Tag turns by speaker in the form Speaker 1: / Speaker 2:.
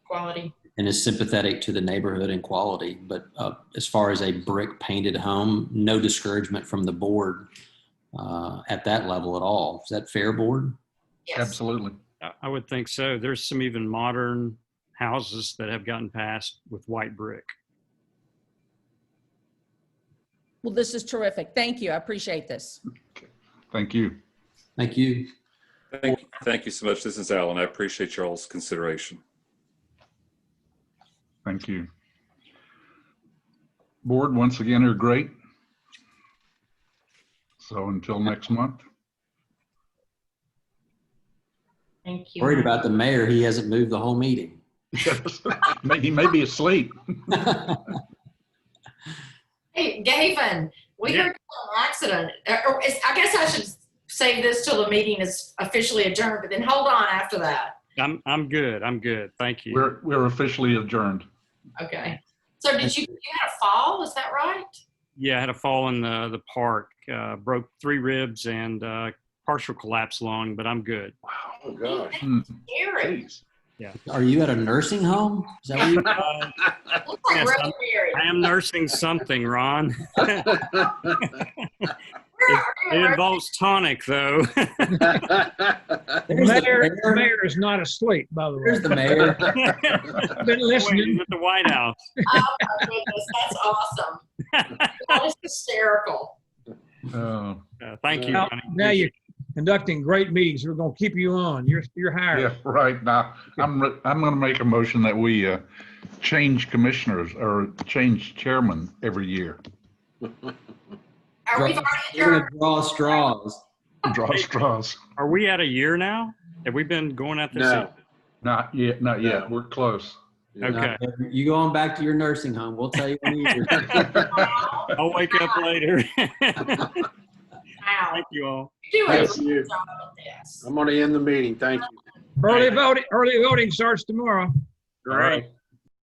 Speaker 1: quality.
Speaker 2: and is sympathetic to the neighborhood and quality. But uh, as far as a brick painted home, no discouragement from the board uh, at that level at all. Is that fair, board?
Speaker 1: Yes.
Speaker 3: Absolutely.
Speaker 4: I- I would think so. There's some even modern houses that have gotten passed with white brick.
Speaker 5: Well, this is terrific. Thank you. I appreciate this.
Speaker 3: Thank you.
Speaker 2: Thank you.
Speaker 6: Thank, thank you so much. This is Alan. I appreciate y'all's consideration.
Speaker 3: Thank you. Board, once again, are great. So until next month,
Speaker 1: Thank you.
Speaker 2: Worried about the mayor, he hasn't moved the whole meeting.
Speaker 3: May- he may be asleep.
Speaker 1: Hey, Gavin, we
Speaker 4: Yeah.
Speaker 1: heard an accident. Uh, or is- I guess I should save this till the meeting is officially adjourned, but then hold on after that.
Speaker 4: I'm, I'm good. I'm good. Thank you.
Speaker 3: We're, we're officially adjourned.
Speaker 1: Okay. So did you, you had a fall? Is that right?
Speaker 4: Yeah, I had a fall in the, the park, uh, broke three ribs and uh, partial collapse lung, but I'm good.
Speaker 6: Oh, gosh.
Speaker 3: Hmm,
Speaker 1: Gary,
Speaker 3: geez.
Speaker 2: Are you at a nursing home? Is that what you?
Speaker 4: Uh,
Speaker 1: looks like
Speaker 4: Yes,
Speaker 1: Brother
Speaker 4: I'm-
Speaker 1: Gary.
Speaker 4: I am nursing something, Ron.
Speaker 1: Where are you?
Speaker 4: It involves tonic, though.
Speaker 2: There's the
Speaker 7: Mayor, the
Speaker 2: mayor.
Speaker 7: mayor is not asleep, by the way.
Speaker 2: There's the mayor.
Speaker 7: I've been listening.
Speaker 4: Wait, at the White House.
Speaker 1: Oh my goodness, that's awesome. That is hysterical.
Speaker 3: Uh,
Speaker 4: Uh, thank you.
Speaker 7: Now
Speaker 4: Ronnie.
Speaker 7: now you're conducting great meetings. We're going to keep you on. You're, you're hired.
Speaker 3: Yeah, right. Now, I'm, re- I'm going to make a motion that we uh, change commissioners or change chairman every year.
Speaker 1: Are we already
Speaker 2: You're
Speaker 1: adjourned?
Speaker 2: gonna draw straws.
Speaker 3: Draw straws.
Speaker 4: Are we at a year now? Have we been going at this?
Speaker 6: No.
Speaker 3: Not yet, not
Speaker 6: No.
Speaker 3: yet. We're close.
Speaker 4: Okay.
Speaker 2: Uh, You go on back to your nursing home. We'll tell you when you're.
Speaker 1: Wow,
Speaker 4: I'll wake up later. thank
Speaker 1: wow.
Speaker 4: you all.
Speaker 1: You do a
Speaker 8: Yes,
Speaker 1: great
Speaker 8: you.
Speaker 1: job at this.
Speaker 8: I'm going to end the meeting. Thank you.
Speaker 7: Early voting, early voting starts tomorrow.
Speaker 4: All right.